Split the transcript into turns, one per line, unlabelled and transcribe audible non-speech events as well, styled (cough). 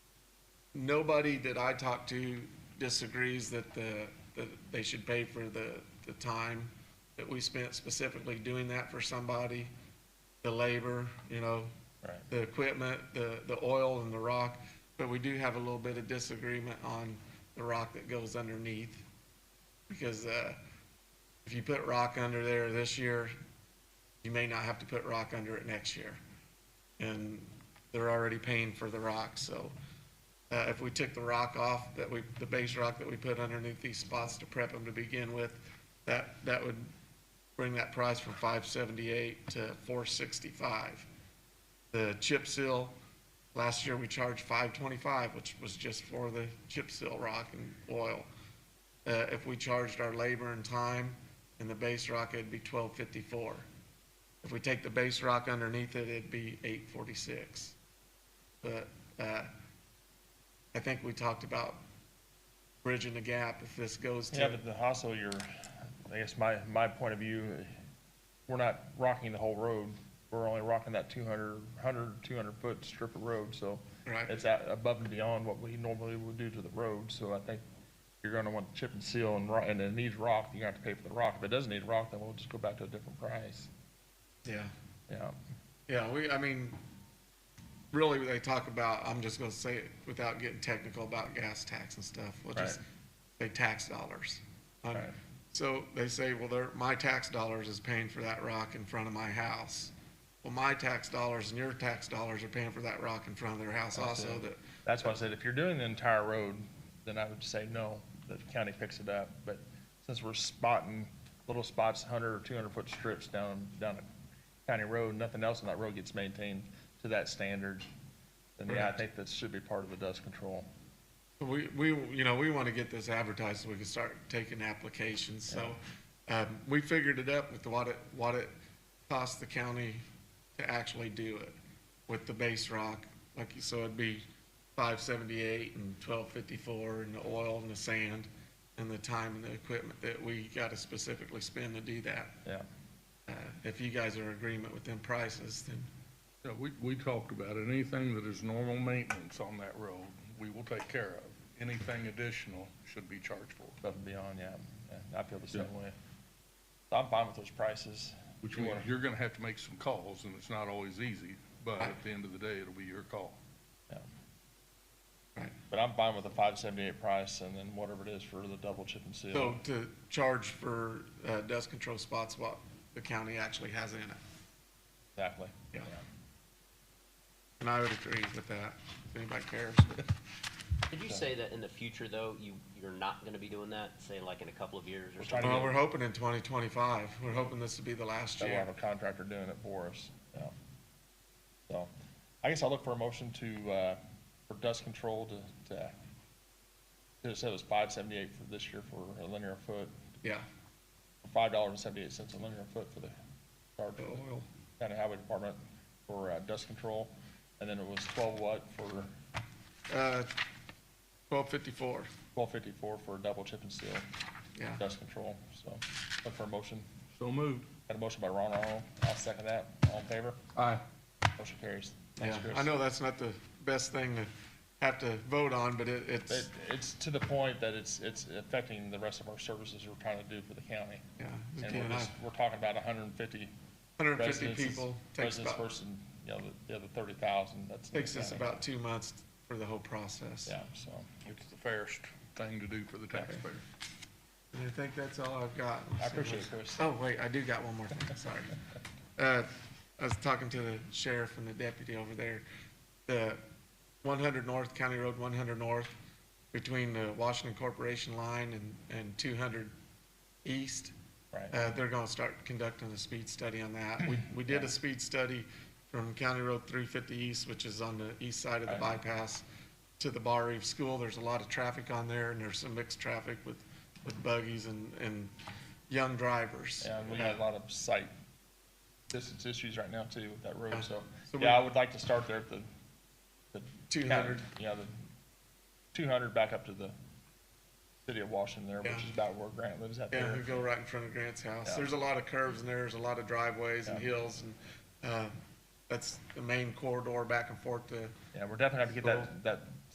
nobody that I talk to disagrees that the, that they should pay for the, the time that we spent specifically doing that for somebody, the labor, you know,
Right.
the equipment, the, the oil and the rock, but we do have a little bit of disagreement on the rock that goes underneath. Because, uh, if you put rock under there this year, you may not have to put rock under it next year. And they're already paying for the rock, so, uh, if we took the rock off that we, the base rock that we put underneath these spots to prep them to begin with, that, that would bring that price from five seventy-eight to four sixty-five. The chip seal, last year we charged five twenty-five, which was just for the chip seal rock and oil. Uh, if we charged our labor and time in the base rock, it'd be twelve fifty-four. If we take the base rock underneath it, it'd be eight forty-six. But, uh, I think we talked about bridging the gap if this goes
Yeah,
to,
but the also you're, I guess my, my point of view, we're not rocking the whole road. We're only rocking that 200, 100, 200 foot strip of road, so
right?
it's out above and beyond what we normally would do to the road. So I think you're gonna want to chip and seal and rock, and it needs rock, you're gonna have to pay for the rock. If it doesn't need rock, then we'll just go back to a different price.
Yeah.
Yeah,
Yeah, we, I mean, really, they talk about, I'm just gonna say it without getting technical about gas tax and stuff, which is,
Right.
they tax dollars. Um,
Right.
So they say, well, they're, my tax dollars is paying for that rock in front of my house. Well, my tax dollars and your tax dollars are paying for that rock in front of their house
That's
also
it.
that,
that's why I said if you're doing the entire road, then I would say no, that the county picks it up. But since we're spotting little spots, 100 or 200 foot strips down, down a county road, nothing else on that road gets maintained to that standard, then yeah, I
Correct.
think that should be part of the dust control.
We, we, you know, we want to get this advertised so we can start taking applications, so, um, we figured it up with what it, what it costs the county to actually do it with the base rock, like, you- so it'd be five seventy-eight and twelve fifty-four and the oil and the sand and the time and the equipment that we got to specifically spend to do that.
Yeah.
Uh, if you guys are in agreement with them prices, then,
Yeah, we, we talked about it. Anything that is normal maintenance on that road, we will take care of. Anything additional should be charged for.
Above and beyond, yeah. Yeah, I feel the same
Yeah.
way. So I'm fine with those prices.
Which
You
means
wanna-
you're gonna have to make some calls, and it's not always easy, but at the end of the day, it'll be your call.
Yeah.
Right.
But I'm fine with the 578 price and then whatever it is for the double chip and seal.
so to charge for, uh, dust control spots, what the county actually has in it.
Exactly.
Yeah. And I would agree with that, if anybody
(laughs)
cares.
Did you say that in the future, though, you, you're not gonna be doing that, say like in a couple of years or
We're trying
something?
to
Well,
get-
we're hoping in twenty twenty-five, we're hoping this will be the last
that we'll
year.
have a contractor doing it for us, yeah. So, I guess I'll look for a motion to, uh, for dust control to, to, it said it was five seventy-eight for this year for a linear foot,
Yeah,
five dollars and seventy-eight cents a linear foot for the, charge
the
for the
oil,
county highway department for, uh, dust control. And then it was twelve what for,
uh, twelve fifty-four,
twelve fifty-four for double chip and seal
yeah.
dust control, so, look for a motion.
So moved.
Got a motion by Ron Aron, I'll second that, all in favor?
Aye.
Motion carries. Thanks,
Yeah,
Chris.
I know that's not the best thing to have to vote on, but it,
It,
it's,
it's to the point that it's, it's affecting the rest of our services we're trying to do for the county.
yeah.
And we're just, we're talking about hundred and fifty
Hundred and fifty
residences,
people, takes
residents
about,
versus, you know, the- the other thirty thousand, that's. in the
takes us
county.
about two months for the whole process.
Yeah, so,
It's the fairest thing to do for the taxpayer.
And I think that's all I've got.
I appreciate it, Chris.
Oh, wait, I do got one more thing, sorry. Uh, I was talking to the sheriff and the deputy over there. The one hundred north, County Road one hundred north, between the Washington Corporation line and, and two hundred east.
Right,
Uh, they're gonna start conducting a speed study on that. We, we did a speed study from County Road three fifty east, which is on the east side of the
Right.
bypass, to the Bar Eve School. There's a lot of traffic on there, and there's some mixed traffic with, with buggies and, and young drivers.
yeah, we got a lot of site distance issues right now too with that road,
Yeah.
so,
So we-
yeah, I would like to start there at the, the.
Two hundred,
Yeah, the two hundred back up to the city of Washington there, which
Yeah.
is about where Grant lives out
yeah,
there.
who go right in front of Grant's house.
Yeah.
There's a lot of curves in there, there's a lot of driveways and
Yeah.
hills, and, uh, that's the main corridor back and forth to,
Yeah, we're definitely gonna have to get that, that